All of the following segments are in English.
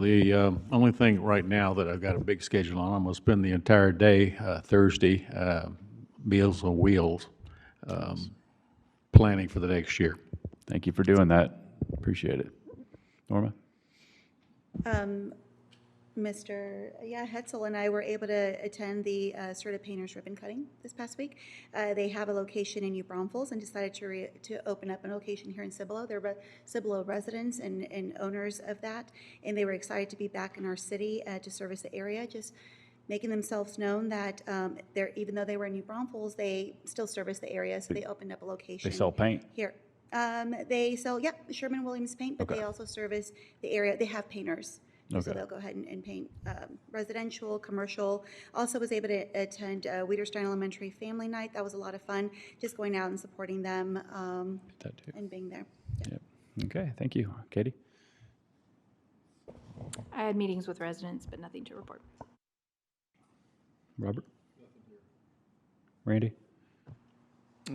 The uh, only thing right now that I've got a big schedule on, I'm going to spend the entire day uh, Thursday, uh, Meals on Wheels, um, planning for the next year. Thank you for doing that. Appreciate it. Norma? Mr. Yeah, Hetzel and I were able to attend the uh, Serta Painters ribbon cutting this past week. Uh, They have a location in New Braunfels and decided to, re- to open up a location here in Cibolo. They're re- Cibolo residents and, and owners of that, and they were excited to be back in our city uh, to service the area, just making themselves known that um, they're, even though they were in New Braunfels, they still service the area, so they opened up a location. They sell paint. Here. Um, they sell, yep, Sherman Williams Paint, but they also service the area, they have painters. So they'll go ahead and, and paint, um, residential, commercial. Also was able to attend, uh, Weiderstein Elementary Family Night. That was a lot of fun, just going out and supporting them, um, That too. and being there. Yep. Okay, thank you. Katie? I had meetings with residents, but nothing to report. Robert? Randy?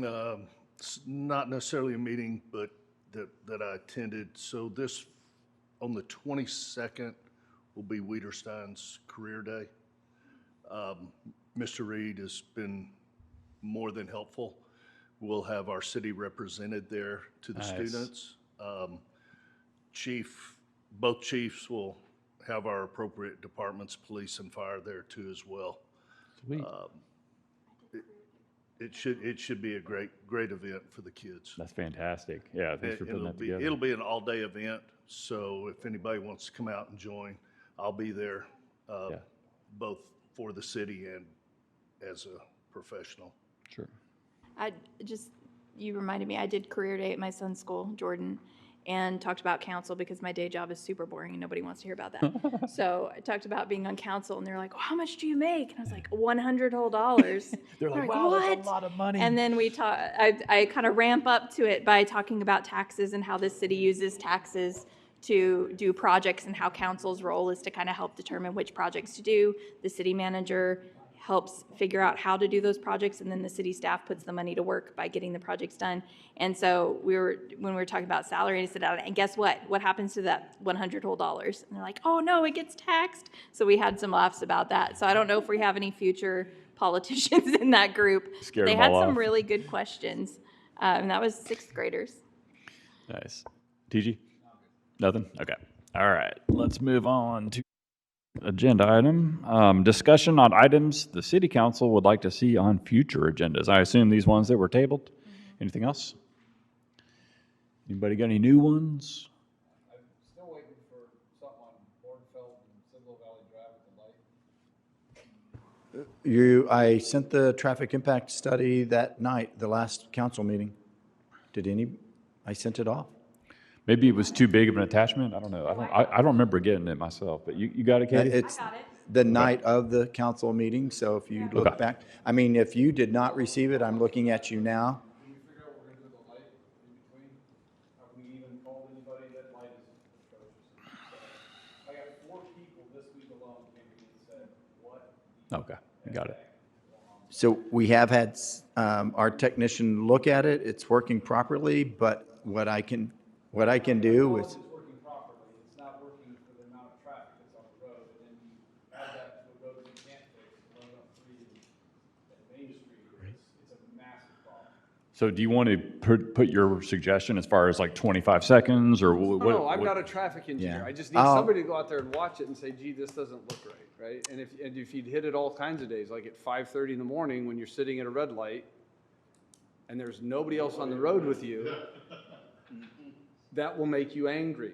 um, s- not necessarily a meeting, but that, that I attended. So this, on the 22nd, will be Weiderstein's Career Day. Um, Mr. Reed has been more than helpful. We'll have our city represented there to the students. Um, Chief, both chiefs will have our appropriate departments, police and fire there too as well Uh, it should, it should be a great, great event for the kids. That's fantastic. Yeah, thanks for putting It'll that be, together. it'll be an all-day event, so if anybody wants to come out and join, I'll be there, uh, Yeah. both for the city and as a professional. Sure. I just, you reminded me, I did career day at my son's school, Jordan, and talked about council because my day job is super boring and nobody wants to hear about that. So I talked about being on council and they're like, "Well, how much do you make? And I was like, 100 whole dollars. They're I'm like, wow, that's a "What?" lot of money. And then we talk, I, I kind of ramp up to it by talking about taxes and how the city uses taxes to do projects and how council's role is to kind of help determine which projects to do. The city manager helps figure out how to do those projects and then the city staff puts the money to work by getting the projects done. And so we were, when we were talking about salary, I said, and guess what? What happens to that one hundred whole dollars? And they're like, oh no, it gets taxed. So we had some laughs about that. So I don't know if we have any future politicians in that group. Scared They them had all some off. really good questions. Um, that was sixth graders. Nice. TG? Nothing? Okay. All right. Let's move on to agenda item. Um, discussion on items the city council would like to see on future agendas. I assume these ones that were tabled. Mm-hmm. Anything else? Anybody got any new ones? Still waiting for something on Bornfeld and Cibolo Valley Drive with the light. You, I sent the traffic impact study that night, the last council meeting. Did any, I sent it off. Maybe it was too big of an attachment. I don't know. I don't, I, I don't remember getting it myself, but you, you got it, Uh, Katie? It's the night of the council meeting, so if you Okay. look back, I mean, if you did not receive it, I'm looking at you now. Have we even called anybody that light is atrocious? So, I got four people this week alone came to me and said, what? Okay. Got it. So we have had um, our technician look at it, it's working properly, but what I can, what I can do is, It's working properly, it's not working for the amount of traffic that's on the road, and then you add that to the roads you can't fix, one up three and and Main Street, it's, it's a massive problem. So do you want to put, put your suggestion as far as like 25 seconds or wh- what? Oh, No, I'm what- not a traffic engineer. Yeah. I just need Oh. somebody to go out there and watch it and say, gee, this doesn't look right, right? And if, and if you'd hit it all kinds of days, like at five thirty in the morning when you're sitting at a red light and there's nobody else on the road with you, that will make you angry.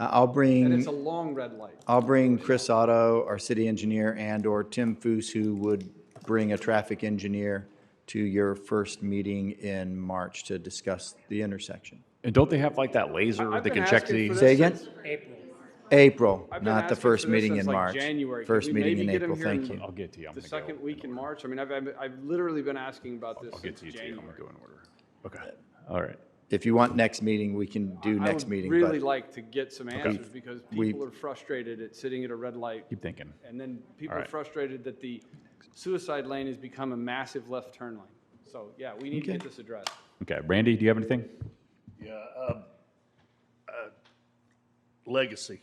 uh, I'll bring. And it's a long red light. I'll bring Chris Otto, our city engineer, and/or Tim Foose, who would bring a traffic engineer to your first meeting in March to discuss the intersection. And don't they have like that laser I've that been can check asking the? for Say this again? since- April, I've been not the asking first for this meeting since, in like, March. January. Could First we meeting maybe in get 'em April, here thank in- you. I'll get to you. I'm The gonna go- second week in March. I mean, I've, I've- I've literally been asking about this I'll get since to you too. I'm gonna January. go in order. Okay. All right. If you want next meeting, we can do I next would meeting, really but like to get some answers because We- people are frustrated at sitting at a red light Keep thinking. And then people All are right. frustrated that the suicide lane has become a massive left turn lane. So, yeah, we need to get this addressed. Okay. Randy, do you have anything? Yeah, um, uh, legacy.